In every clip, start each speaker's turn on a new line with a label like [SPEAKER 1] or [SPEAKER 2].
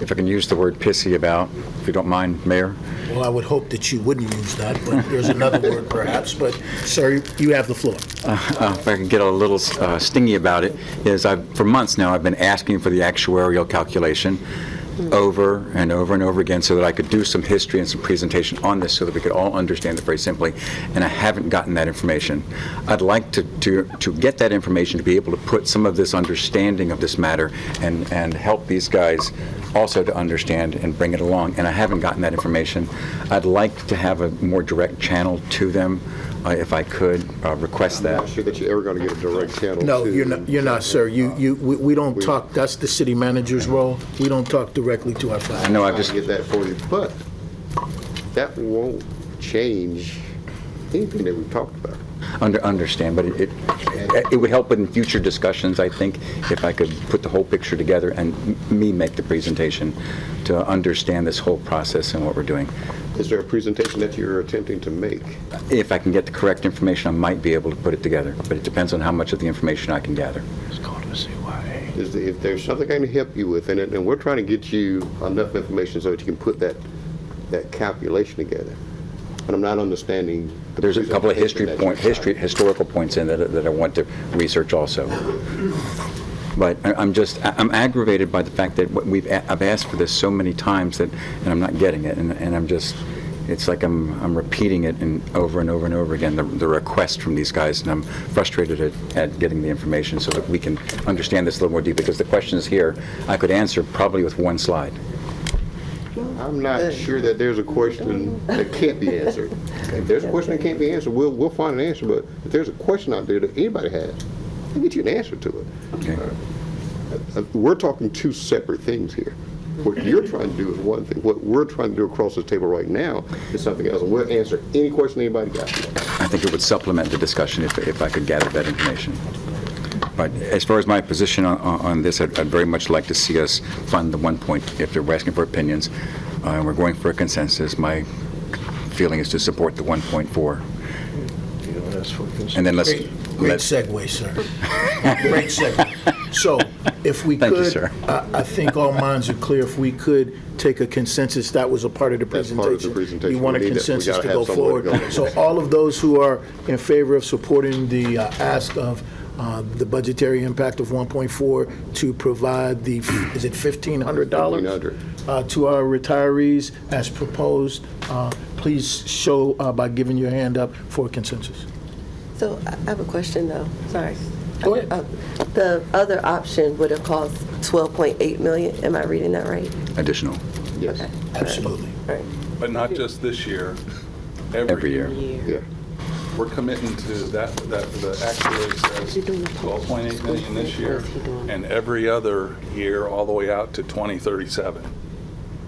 [SPEAKER 1] if I can use the word pissy about, if you don't mind, Mayor.
[SPEAKER 2] Well, I would hope that you wouldn't use that, but there's another word perhaps. But, sir, you have the floor.
[SPEAKER 1] Uh, If I can get a little uh, stingy about it, is I've, for months now, I've been asking for the actuarial calculation over and over and over again so that I could do some history and some presentation on this so that we could all understand it very simply, and I haven't gotten that information. I'd like to, to, to get that information to be able to put some of this understanding of this matter and, and help these guys also to understand and bring it along, and I haven't gotten that information. I'd like to have a more direct channel to them, uh, if I could, uh, request that.
[SPEAKER 3] I'm not sure that you're ever going to get a direct channel.
[SPEAKER 2] No,
[SPEAKER 3] to-
[SPEAKER 2] you're not, you're not, sir. You, you, we we don't talk, that's the city manager's role. We don't talk directly to our
[SPEAKER 1] I
[SPEAKER 2] client.
[SPEAKER 1] know I've
[SPEAKER 3] Trying to
[SPEAKER 1] just,
[SPEAKER 3] get that for you, but that won't change anything that we've talked about.
[SPEAKER 1] under understand, but it, it- it would help in future discussions, I think, if I could put the whole picture together and m- me make the presentation to understand this whole process and what we're doing.
[SPEAKER 3] Is there a presentation that you're attempting to make?
[SPEAKER 1] If I can get the correct information, I might be able to put it together, but it depends on how much of the information I can gather.
[SPEAKER 3] Is, the- if there's something I can help you with, and, it- and we're trying to get you enough information so that you can put that, that calculation together. But I'm not understanding. the
[SPEAKER 1] There's a couple of history
[SPEAKER 3] presentation that
[SPEAKER 1] point,
[SPEAKER 3] you're
[SPEAKER 1] history, historical points in that, that I want to research also. But I- I'm just, I- I'm aggravated by the fact that what we've, a- I've asked for this so many times that, and I'm not getting it, and, and I'm just, it's like I'm, I'm repeating it and over and over and over again, the, the request from these guys, and I'm frustrated at, at getting the information so that we can understand this a little more deeply, because the questions here, I could answer probably with one slide.
[SPEAKER 3] I'm not sure that there's a question that can't be answered. If there's a question that can't be answered, we'll, we'll find an answer, but if there's a question out there that anybody has, we'll get you an answer to it.
[SPEAKER 1] Okay.
[SPEAKER 3] Uh, We're talking two separate things here. What you're trying to do is one thing, what we're trying to do across the table right now is something else, and we'll answer any question anybody got.
[SPEAKER 1] I think it would supplement the discussion if, if I could gather that information. But as far as my position on, on on this, I'd I'd very much like to see us fund the one point, if they're asking for opinions, uh, and we're going for a consensus, my feeling is to support the 1.4. And then let's,
[SPEAKER 2] Great great
[SPEAKER 1] let's,
[SPEAKER 2] segue, sir. Great segue. So if we could.
[SPEAKER 1] Thank you, sir.
[SPEAKER 2] I, I think all minds are clear. If we could take a consensus, that was a part of the
[SPEAKER 3] That's
[SPEAKER 2] presentation.
[SPEAKER 3] part of the presentation.
[SPEAKER 2] You want a
[SPEAKER 3] We need it. We
[SPEAKER 2] consensus
[SPEAKER 3] gotta
[SPEAKER 2] to
[SPEAKER 3] have
[SPEAKER 2] go
[SPEAKER 3] somewhere
[SPEAKER 2] forward.
[SPEAKER 3] to go.
[SPEAKER 2] So all of those who are in favor of supporting the uh, ask of uh, the budgetary impact of 1.4 to provide the, is it $1,500?
[SPEAKER 3] $1,500.
[SPEAKER 2] uh, To our retirees as proposed, uh, please show uh, by giving your hand up for consensus.
[SPEAKER 4] So I I have a question, though, sorry.
[SPEAKER 2] Go ahead.
[SPEAKER 4] Uh, The other option would have cost 12.8 million, am I reading that right?
[SPEAKER 1] additional,
[SPEAKER 3] Yes,
[SPEAKER 2] Absolutely.
[SPEAKER 4] All right.
[SPEAKER 5] But not just this year,
[SPEAKER 1] every
[SPEAKER 5] every year.
[SPEAKER 1] year.
[SPEAKER 3] yeah.
[SPEAKER 5] We're committing to that, that the actuary says 12.8 million this year, and every other year, all the way out to 2037.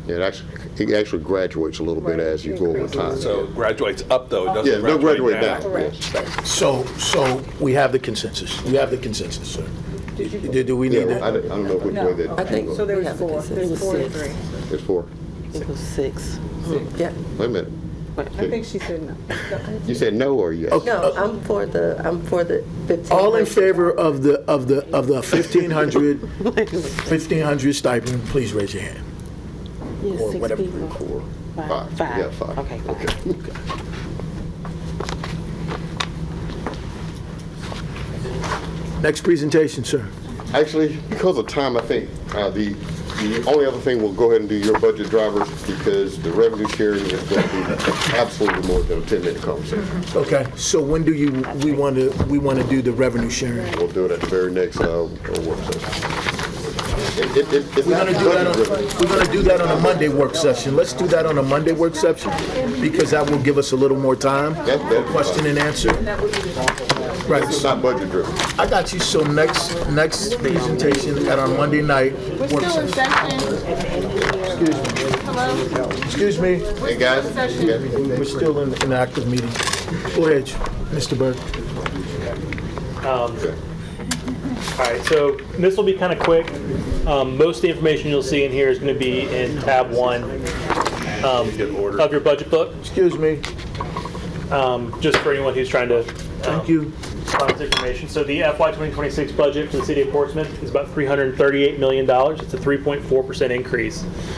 [SPEAKER 3] It actually, it actually graduates a little bit as you go over time.
[SPEAKER 5] So it graduates up, though, it
[SPEAKER 3] Yeah,
[SPEAKER 5] doesn't
[SPEAKER 3] no graduate
[SPEAKER 5] graduate
[SPEAKER 3] back,
[SPEAKER 5] down.
[SPEAKER 3] yes.
[SPEAKER 2] So, so we have the consensus. We have the consensus, sir. Do do we
[SPEAKER 3] Yeah,
[SPEAKER 2] need
[SPEAKER 3] I
[SPEAKER 2] that?
[SPEAKER 3] don't I don't know which way that.
[SPEAKER 4] I think
[SPEAKER 6] So there
[SPEAKER 4] we
[SPEAKER 6] was
[SPEAKER 4] have a
[SPEAKER 6] four,
[SPEAKER 4] consensus.
[SPEAKER 6] there was four or three.
[SPEAKER 3] It's four.
[SPEAKER 4] It was six. Yeah,
[SPEAKER 3] Wait a minute.
[SPEAKER 6] I think she said no.
[SPEAKER 3] You said no or yes?
[SPEAKER 4] no, I'm for the, I'm for the 15.
[SPEAKER 2] Uh, All in favor of the, of the, of the 1,500, 1,500 stipend, please raise your hand.
[SPEAKER 4] Yeah,
[SPEAKER 2] or
[SPEAKER 4] six
[SPEAKER 2] whatever.
[SPEAKER 4] people.
[SPEAKER 3] Four.
[SPEAKER 6] Five.
[SPEAKER 3] Five, yeah, five.
[SPEAKER 6] Okay, five.
[SPEAKER 2] Next presentation, sir.
[SPEAKER 3] Actually, because of time, I think, uh, the, the only other thing, we'll go ahead and do your budget drivers because the revenue sharing is going to be absolutely more than a 10-minute conversation.
[SPEAKER 2] Okay, so when do you, we want to, we want to do the revenue sharing?
[SPEAKER 3] We'll do it at the very next uh, work session. It- it- it- It's
[SPEAKER 2] We're
[SPEAKER 3] not
[SPEAKER 2] gonna do that on,
[SPEAKER 3] budget-driven.
[SPEAKER 2] we're gonna do that on a Monday work session. Let's do that on a Monday work session, because that will give us a little more time
[SPEAKER 3] That-
[SPEAKER 2] for
[SPEAKER 3] that-
[SPEAKER 2] question and answer. Right,
[SPEAKER 3] It's
[SPEAKER 2] so
[SPEAKER 3] not budget-driven.
[SPEAKER 2] I got you, so next, next presentation at our Monday night work session.
[SPEAKER 7] session. Hello?
[SPEAKER 2] Excuse me,
[SPEAKER 3] Hey, guys, you got-
[SPEAKER 2] we're still in an active meeting. Go ahead, Mr. Burke.
[SPEAKER 8] All right, so this will be kind of quick. Um, Most of the information you'll see in here is going to be in tab one um, of your budget book,
[SPEAKER 2] Excuse me,
[SPEAKER 8] just for anyone who's trying to
[SPEAKER 2] thank you.
[SPEAKER 8] finance information. So the FY 2026 budget for the city of Portsmouth is about $338 million. It's a 3.4% increase.